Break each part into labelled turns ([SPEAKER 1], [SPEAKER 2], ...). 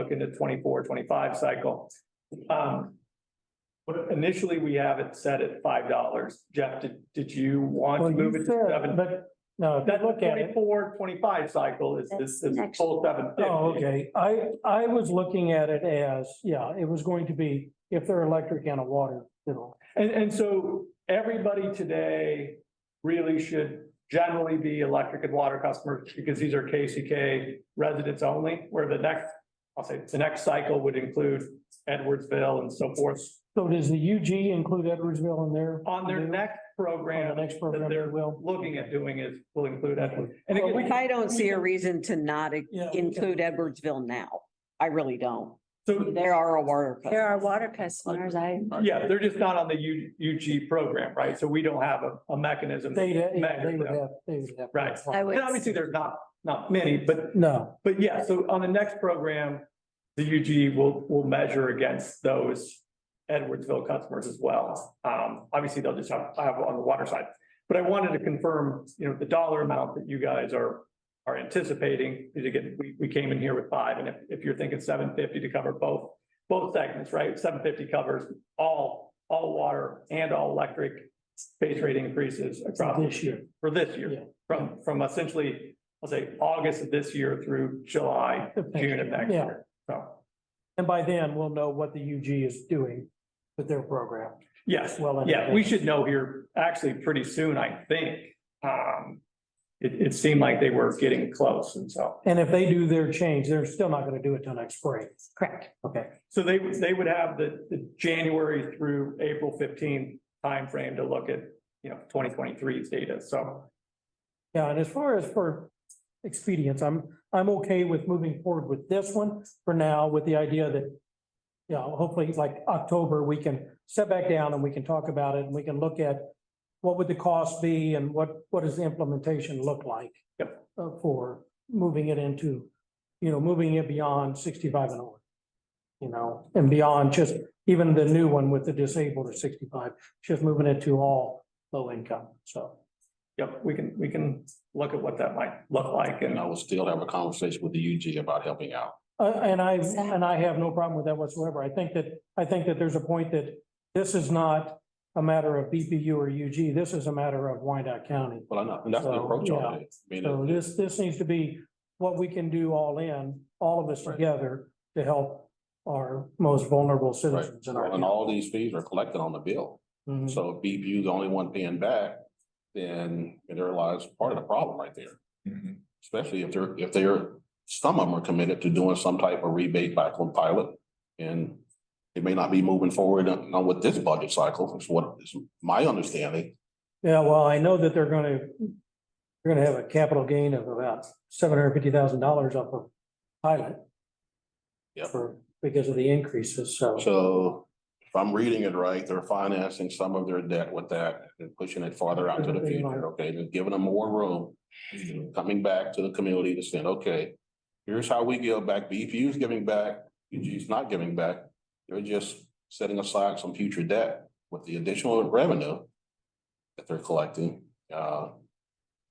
[SPEAKER 1] look into 24, 25 cycle. Um. But initially, we have it set at five dollars. Jeff, did, did you want to
[SPEAKER 2] Well,
[SPEAKER 1] move
[SPEAKER 2] you
[SPEAKER 1] it to
[SPEAKER 2] said,
[SPEAKER 1] seven?
[SPEAKER 2] but, no, if
[SPEAKER 1] That
[SPEAKER 2] you look at it,
[SPEAKER 1] 24, 25 cycle is this, is
[SPEAKER 3] Next.
[SPEAKER 1] full seven.
[SPEAKER 2] oh, okay, I, I was looking at it as, yeah, it was going to be if they're electric and a water bill.
[SPEAKER 1] And, and so everybody today really should generally be electric and water customers because these are KCK residents only, where the next, I'll say, the next cycle would include Edwardsville and so forth.
[SPEAKER 2] So does the UG include Edwardsville in there?
[SPEAKER 1] On their next
[SPEAKER 2] Mm-hmm. On
[SPEAKER 1] program,
[SPEAKER 2] the next
[SPEAKER 1] that
[SPEAKER 2] program, they
[SPEAKER 1] they're
[SPEAKER 2] will.
[SPEAKER 1] looking at doing is will include Edwards. And again, we
[SPEAKER 3] Well,
[SPEAKER 1] can-
[SPEAKER 3] I don't see a reason to not
[SPEAKER 2] Yeah.
[SPEAKER 3] include Edwardsville now. I really don't.
[SPEAKER 1] so,
[SPEAKER 3] There are a water.
[SPEAKER 4] There are water customers, I,
[SPEAKER 1] yeah, they're just not on the U, UG program, right? So we don't have a, a mechanism.
[SPEAKER 2] They, yeah,
[SPEAKER 1] Measure
[SPEAKER 2] they would
[SPEAKER 1] them.
[SPEAKER 2] have, they would have.
[SPEAKER 1] Right.
[SPEAKER 4] I would.
[SPEAKER 1] And obviously, there's not, not many, but
[SPEAKER 2] No,
[SPEAKER 1] But yeah, so on the next program, the UG will, will measure against those Edwardsville customers as well. Um, obviously, they'll just have, have on the water side. But I wanted to confirm, you know, the dollar amount that you guys are, are anticipating, because again, we, we came in here with five, and if, if you're thinking seven fifty to cover both, both segments, right? Seven fifty covers all, all water and all electric base rate increases across
[SPEAKER 2] this year.
[SPEAKER 1] for this
[SPEAKER 2] Yeah.
[SPEAKER 1] year, from, from essentially, I'll say, August of this year through July, June of next
[SPEAKER 2] Yeah.
[SPEAKER 1] year. So,
[SPEAKER 2] And by then, we'll know what the UG is doing with their program.
[SPEAKER 1] yes,
[SPEAKER 2] Well,
[SPEAKER 1] yeah, we should know here actually pretty soon, I think. Um, it, it seemed like they were getting close and so,
[SPEAKER 2] And if they do their change, they're still not gonna do it till next spring.
[SPEAKER 4] correct.
[SPEAKER 2] Okay,
[SPEAKER 1] so they, would- they would have the, the January through April fifteenth timeframe to look at, you know, 2023's data, so.
[SPEAKER 2] yeah, and as far as for expedience, I'm, I'm okay with moving forward with this one for now with the idea that, you know, hopefully like October, we can step back down and we can talk about it and we can look at what would the cost be and what, what does the implementation look like? uh, for moving it into, you know, moving it beyond sixty-five and over. You know, and beyond just even the new one with the disabled or sixty-five, just moving it to all low income, so.
[SPEAKER 1] Yep, we can, we can look at what that might look like and
[SPEAKER 5] And I will still have a conversation with the UG about helping out.
[SPEAKER 2] Uh, and I, and I have no problem with that whatsoever. I think that, I think that there's a point that this is not a matter of BPU or UG. This is a matter of Wyandotte County.
[SPEAKER 5] Well, I know, and that's the
[SPEAKER 2] So,
[SPEAKER 5] approach
[SPEAKER 2] yeah.
[SPEAKER 5] on it. I
[SPEAKER 2] So
[SPEAKER 5] mean,
[SPEAKER 2] this, this needs to be what we can do all in, all of us together to help our most vulnerable citizens in our.
[SPEAKER 5] And all these fees are collected on the bill.
[SPEAKER 2] Mhm.
[SPEAKER 5] So if BPU is the only one paying back, then there lies part of the problem right there. Especially if they're, if they're, some of them are committed to doing some type of rebate back on pilot. And it may not be moving forward on on with this budget cycle, is what is my understanding.
[SPEAKER 2] Yeah, well, I know that they're gonna, they're gonna have a capital gain of about seven hundred fifty thousand dollars off of pilot.
[SPEAKER 5] Yep.
[SPEAKER 2] For, because of the increases, so.
[SPEAKER 5] So if I'm reading it right, they're financing some of their debt with that and pushing it farther out to the future, okay, and giving them more room. Coming back to the community to saying, okay, here's how we give back, E BPU's giving back, UG's not giving back. They're just setting aside some future debt with the additional revenue that they're collecting. Uh,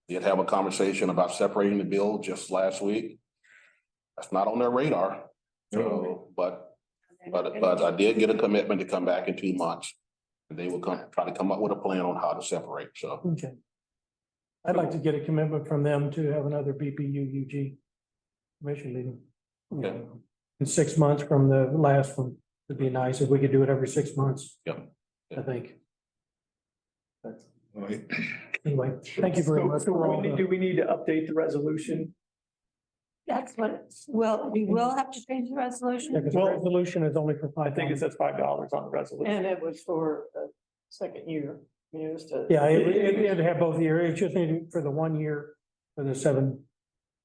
[SPEAKER 5] did have a conversation about separating the bill just last week. That's not on their radar, so, but but, but uh, I did get a commitment to come back in two months. And they will come, try to come up with a plan on how to separate, so.
[SPEAKER 2] Okay. I'd like to get a commitment from them to have another BPU UG commission meeting.
[SPEAKER 5] Okay.
[SPEAKER 2] In six months from the last one, it'd be nice if we could do it every six months.
[SPEAKER 5] Yep.
[SPEAKER 2] I think,
[SPEAKER 6] Right.
[SPEAKER 2] anyway, thank you very
[SPEAKER 1] So-
[SPEAKER 2] much.
[SPEAKER 1] So
[SPEAKER 2] for all
[SPEAKER 1] we need-
[SPEAKER 2] the-
[SPEAKER 1] do we need to update the resolution?
[SPEAKER 4] That's what, well, we will have to change the resolution.
[SPEAKER 2] Yeah, 'cause the
[SPEAKER 1] Well,
[SPEAKER 2] resolution is only for
[SPEAKER 1] I
[SPEAKER 2] five.
[SPEAKER 1] think it
[SPEAKER 2] dollars.
[SPEAKER 1] says five dollars on the resolution.
[SPEAKER 7] And it was for a second year, I mean, it was to.
[SPEAKER 2] Yeah, it, it, it'd have both year, it's just needed for the one year, for the seven.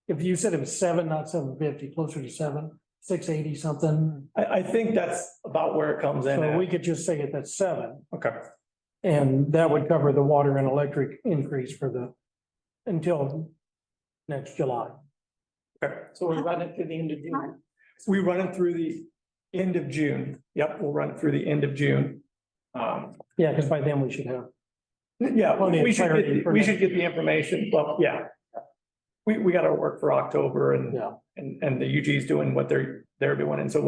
[SPEAKER 2] If you said it was seven, not seven fifty, closer to seven, six eighty something,
[SPEAKER 1] I, I think that's about where it comes in.
[SPEAKER 2] so
[SPEAKER 1] at.
[SPEAKER 2] we could just say it at seven.
[SPEAKER 1] Okay,
[SPEAKER 2] And that would cover the water and electric increase for the, until next July.
[SPEAKER 1] okay.
[SPEAKER 7] So we run it to the end of June.
[SPEAKER 1] We run it through the end of June. Yep, we'll run it through the end of June. Um,
[SPEAKER 2] Yeah, because by then we should have,
[SPEAKER 1] yeah,
[SPEAKER 2] Plenty of
[SPEAKER 1] we should,
[SPEAKER 2] clarity
[SPEAKER 1] get-
[SPEAKER 2] for
[SPEAKER 1] we
[SPEAKER 2] next-
[SPEAKER 1] should get the information, Well, yeah. We, we gotta work for October and,
[SPEAKER 2] yeah.
[SPEAKER 1] and, and the UG's doing what they're, there would be one. And so